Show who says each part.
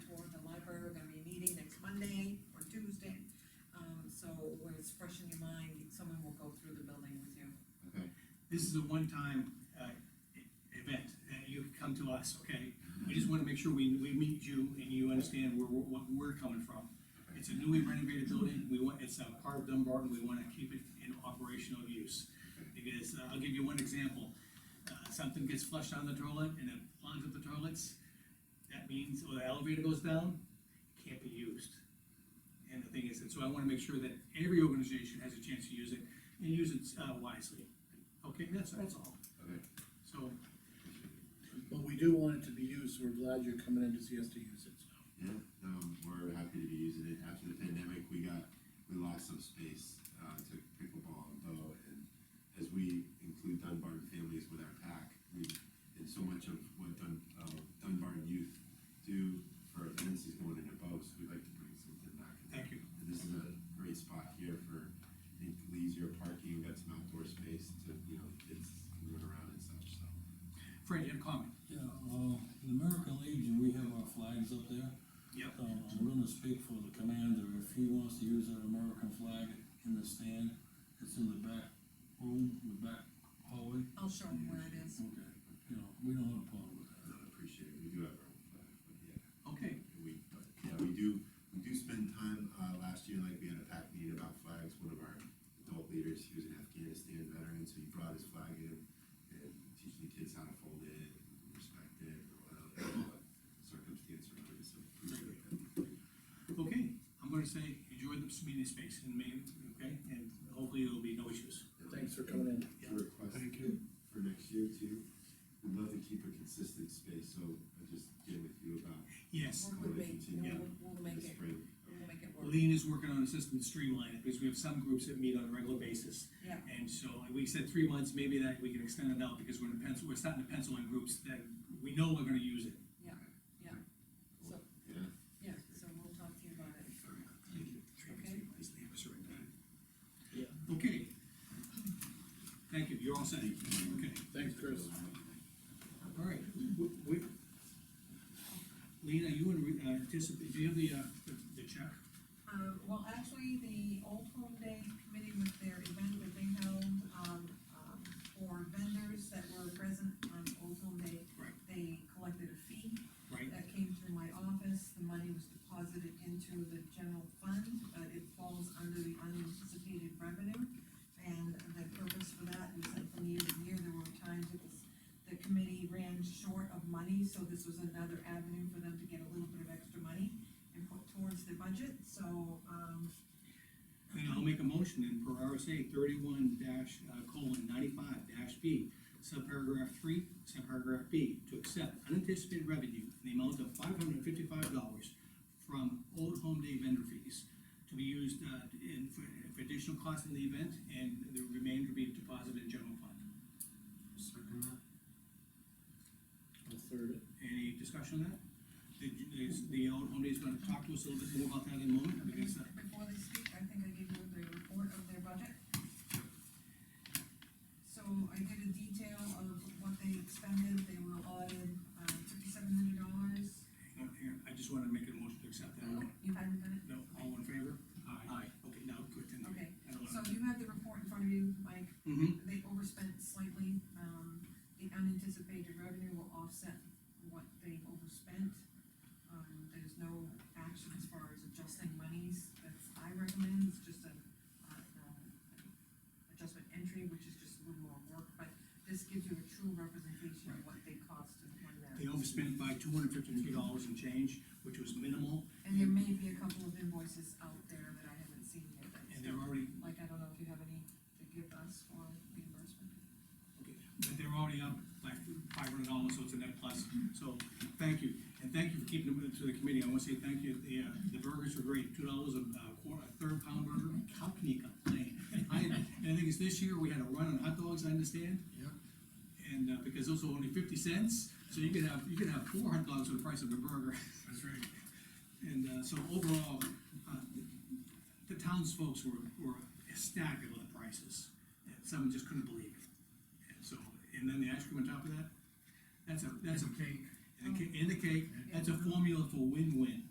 Speaker 1: Um, fresh in your mind, someone will go through the building with you.
Speaker 2: okay?
Speaker 3: This is a one-time, uh, e- event, and you can come to us, okay? We just wanna make sure we, we meet you and you understand where, we're- what we're coming from. It's a newly renovated building, we want, it's a part of Dunbarton, we wanna keep it in operational use. Because, uh, I'll give you one example, uh, something gets flushed down the toilet and it plugs up the toilets, that means, or the elevator goes down, can't be used. And the thing is, and so I wanna make sure that every organization has a chance to use it, and use it uh, wisely. Okay, that's, that's all.
Speaker 2: Okay.
Speaker 3: So,
Speaker 4: But we do want it to be used, we're glad you're coming in to see us to use it, so.
Speaker 2: Yeah, um, we're happy to be using it. After the pandemic, we got, we lost some space, uh, to pickleball and bow. And as we include Dunbarton families with our pack, we, and so much of what Dun, uh, Dunbarton youth do for events is going into bows. We'd like to bring something back.
Speaker 3: thank you.
Speaker 2: And this is a great spot here for, I think, leisure parking, got some outdoor space to, you know, kids can run around and such, so.
Speaker 3: Fred, you had a comment?
Speaker 5: Yeah, uh, the American Legion, we have our flags up there.
Speaker 3: Yep.
Speaker 5: Uh, I'm gonna speak for the commander, if he wants to use that American flag in the stand, it's in the back room, the back hallway.
Speaker 1: I'll show them where it is.
Speaker 5: Okay, you know, we don't have a problem with that.
Speaker 2: I appreciate it. We do have our own flag, but yeah.
Speaker 3: Okay,
Speaker 2: We, but, yeah, we do, we do spend time, uh, last year, like, we had a pack meeting about flags, one of our adult leaders, he was an Afghanistan veteran, so he brought his flag in and teaching the kids how to fold it, and respect it, and all that, all that circumstance around it, so. appreciate that.
Speaker 3: okay, I'm gonna say, enjoy the meeting space in Maine, okay, and hopefully there'll be no issues.
Speaker 4: Thanks for coming in.
Speaker 2: A Request
Speaker 4: you.
Speaker 2: for next year too, we'd love to keep a consistent space, so I just get with you about
Speaker 3: Yes,
Speaker 1: We'll make, we'll, we'll
Speaker 2: the
Speaker 1: make it,
Speaker 2: spring.
Speaker 1: we'll make it work.
Speaker 3: Lean is working on a system to streamline it, because we have some groups that meet on a regular basis.
Speaker 1: Yeah.
Speaker 3: And so, we said three months, maybe that, we can extend it out, because we're in pencil, we're starting to pencil in groups that we know we're gonna use it.
Speaker 1: So,
Speaker 2: Yeah,
Speaker 1: yeah, so we'll talk to you about it.
Speaker 2: thank you.
Speaker 1: Okay.
Speaker 3: Yeah. Okay. Thank you, you're all set, okay.
Speaker 4: Thanks, Chris.
Speaker 3: All right, w- we, Lean, are you in, re- uh, anticipate, do you have the, uh, the- the check?
Speaker 1: Um, well, actually, the Old Home Day Committee with their event that they held, um, um, for vendors that were present on Old Home Day.
Speaker 3: Right.
Speaker 1: They collected a fee
Speaker 3: Right,
Speaker 1: that came through my office, the money was deposited into the general fund, but it falls under the unanticipated revenue. And the purpose for that was that from year to year, there were times it was, the committee ran short of money, so this was another avenue for them to get a little bit of extra money and put towards their budget, so, um,
Speaker 3: and I'll make a motion in per RSA thirty-one dash, uh, colon ninety-five dash B, subparagraph three, subparagraph B, to accept unanticipated revenue in the amount of five hundred and fifty-five dollars from Old Home Day vendor fees to be used, uh, in, for, for additional costs in the event, and the remainder be deposited in general fund.
Speaker 4: I'll third it.
Speaker 3: Any discussion on that? The, is, the old home is gonna talk to us a little bit more about that in a moment, because, uh,
Speaker 1: before they speak, I think I gave you the report of their budget. So I did a detail of what they expended, they were allotted, uh, fifty-seven hundred dollars.
Speaker 3: hang on, hang on, I just wanna make a motion to accept that.
Speaker 1: You hadn't done it?
Speaker 3: No, all in favor? Aye. Okay, now, good, then.
Speaker 1: Okay,
Speaker 3: I don't
Speaker 1: so
Speaker 3: know.
Speaker 1: you have the report in front of you, Mike,
Speaker 3: Mm-hmm,
Speaker 1: they overspent slightly, um, the unanticipated revenue will offset what they overspent. Um, there's no action as far as adjusting monies, that's, I recommend, it's just a, uh, um, adjustment entry, which is just a little more work, but this gives you a true representation of what they cost and when they're.
Speaker 3: they overspent by two hundred fifty-three dollars and change, which was minimal,
Speaker 1: And there may be a couple of invoices out there that I haven't seen yet, but
Speaker 3: and they're already,
Speaker 1: like, I don't know if you have any to give us for reimbursement.
Speaker 3: but they're already up by five hundred dollars, so it's a net plus, so, thank you. And thank you for keeping them to the committee, I wanna say thank you, the, uh, the burgers were great, two dollars a uh, quarter, a third pound burger, how can you complain? I, and I think it's this year, we had a run on hot dogs, I understand,
Speaker 4: Yep.
Speaker 3: and, uh, because those were only fifty cents, so you could have, you could have four hot dogs for the price of a burger. That's right. And, uh, so overall, uh, the townsfolk were, were ecstatic about the prices, and some just couldn't believe it. And so, and then the ice cream on top of that, that's a, that's a. Cake. And the cake, and the cake, that's a formula for win-win.